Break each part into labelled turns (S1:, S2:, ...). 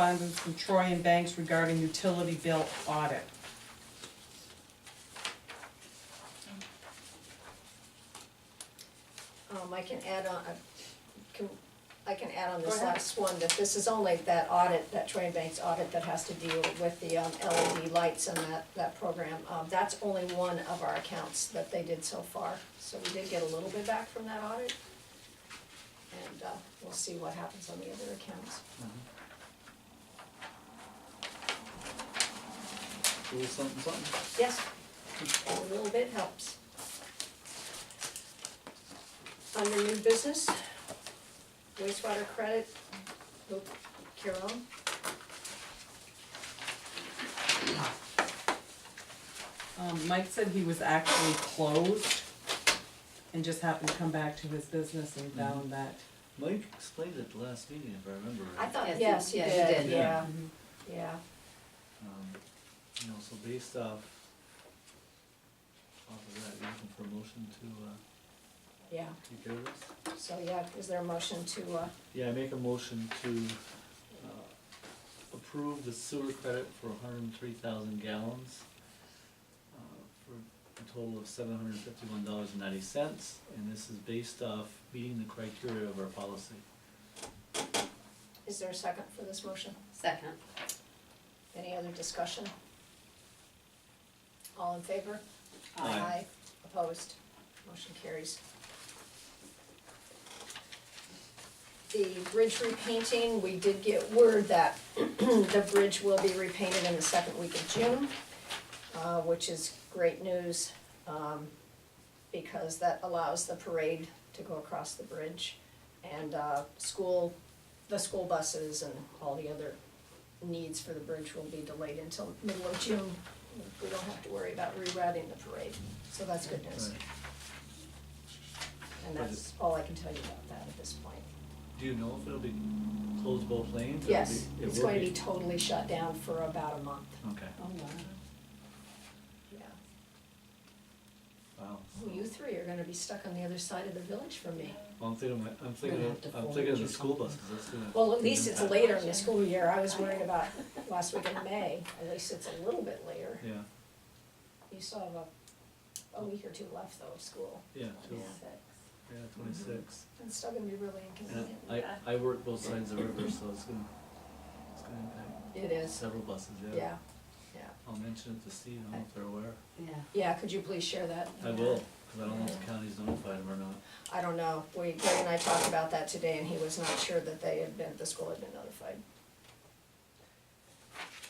S1: correspondence from Troy and Banks regarding utility bill audit.
S2: Um, I can add on, I can, I can add on this
S1: Go ahead.
S2: last one, that this is only that audit, that Troy Banks audit that has to deal with the um, LED lights and that, that program. Um, that's only one of our accounts that they did so far, so we did get a little bit back from that audit. And, uh, we'll see what happens on the other accounts.
S3: little something, something.
S2: Yes, a little bit helps. Under new business, wastewater credit, Luke Kiram.
S1: Um, Mike said he was actually closed and just happened to come back to his business and found that.
S3: Mike explained it the last meeting, if I remember
S2: I
S3: right.
S2: thought, yes,
S4: Yes,
S2: he
S4: yes, he
S2: did,
S4: did.
S2: yeah,
S1: Mhm.
S2: yeah,
S3: Um, you know, so based off, off of that, you're looking for a motion to, uh,
S2: yeah.
S3: take care of this?
S2: So, yeah, is there a motion to, uh,
S3: Yeah, I make a motion to, uh, approve the sewer credit for hundred and three thousand gallons, uh, for a total of seven hundred and fifty-one dollars and ninety cents, and this is based off meeting the criteria of our policy.
S2: is there a second for this motion?
S4: Second.
S2: Any other discussion? All in favor?
S3: Aye.
S2: Opposed? Motion carries. The bridge repainting, we did get word that the bridge will be repainted in the second week of June, uh, which is great news, um, because that allows the parade to go across the bridge. And, uh, school, the school buses and all the other needs for the bridge will be delayed until middle of June. We don't have to worry about rerouting the parade, so that's good news.
S3: Right.
S2: And that's all I can tell you about that at this point.
S3: Do you know if it'll be closed both lanes? It'll
S2: Yes,
S3: be- it
S2: it's
S3: will
S2: going to be totally shut down for about a month,
S3: Okay,
S1: Oh, wow.
S2: yeah.
S3: wow.
S2: Well, You three are gonna be stuck on the other side of the village from me.
S3: Well, I'm thinking, of- I'm thinking,
S4: have to
S3: of- I'm
S4: fold
S3: thinking of
S4: you
S3: the school
S4: something.
S3: buses, that's gonna.
S2: Well, at least it's later in the
S3: Yeah.
S2: school year, I was worried about last week in May, at least it's a little bit later.
S3: Yeah,
S2: You still have a, a week or two left though of school.
S3: yeah, two,
S2: Six.
S3: yeah, twenty-six.
S2: It's still gonna be really
S3: And
S2: inconvenient.
S3: I, I work both sides of the river, so it's gonna, it's gonna impact
S2: It is,
S3: several buses, yeah.
S2: yeah,
S3: I'll mention it to Steve, I don't know if they're aware.
S4: Yeah.
S2: yeah, could you please share that?
S3: I will, cause I don't know if the county's notified them or not.
S2: I don't know, we, Greg and I talked about that today and he was not sure that they had been, the school had been notified.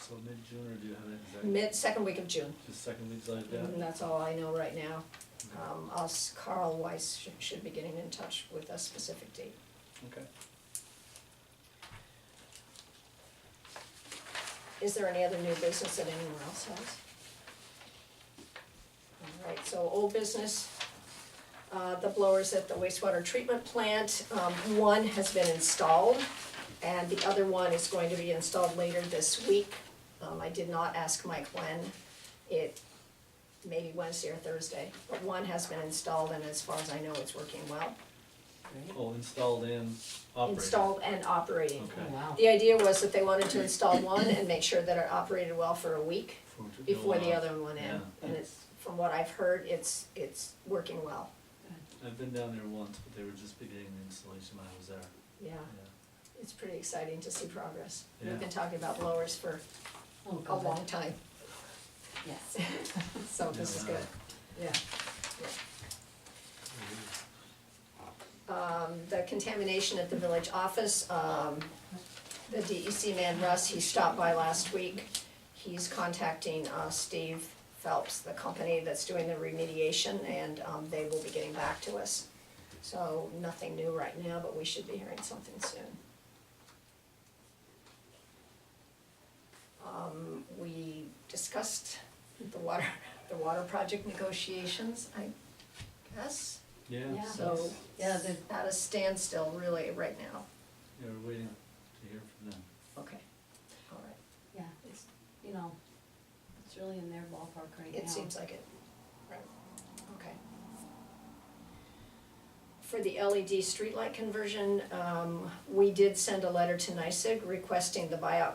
S3: So mid-June, or do you have an exact?
S2: Mid, second week of June,
S3: Just second week's like that?
S2: and that's all I know right now.
S3: Okay.
S2: Um, us, Carl Weiss should, should be getting in touch with a specific date.
S3: Okay.
S2: Is there any other new business that anyone else has? All right, so old business, uh, the blowers at the wastewater treatment plant, um, one has been installed, and the other one is going to be installed later this week. Um, I did not ask Mike when, it, maybe Wednesday or Thursday, but one has been installed, and as far as I know, it's working well.
S3: Oh, installed and operated.
S2: Installed and operating.
S3: Okay.
S4: Oh, wow.
S2: The idea was that they wanted to install one and make sure that it operated well for a week
S3: For- to go
S2: before the
S3: on.
S2: other one went in.
S3: Yeah.
S2: And it's, from what I've heard, it's, it's working well,
S3: I've been down there once, but they were just beginning the installation when I was there,
S2: yeah.
S3: yeah.
S2: It's pretty exciting to see progress. We've
S3: Yeah.
S2: been talking about blowers for
S4: Oh,
S2: a
S4: God.
S2: long time,
S4: Yes.
S2: so this
S3: Yeah,
S2: is
S3: wow.
S2: good, yeah. um, the contamination at the village office, um, the DEC man Russ, he stopped by last week. He's contacting, uh, Steve Phelps, the company that's doing the remediation, and, um, they will be getting back to us. So nothing new right now, but we should be hearing something soon. Um, we discussed the water, the water project negotiations, I guess.
S3: Yeah,
S4: Yeah.
S2: So,
S3: so,
S4: Yeah, the-
S2: at a standstill really right now.
S3: yeah, we're waiting to hear from them.
S2: Okay. All right.
S4: Yeah, it's, you know, it's really in their ballpark right now.
S2: It seems like it. Right. Okay. For the E LED streetlight conversion, um, we did send a letter to NYSIG requesting the buyout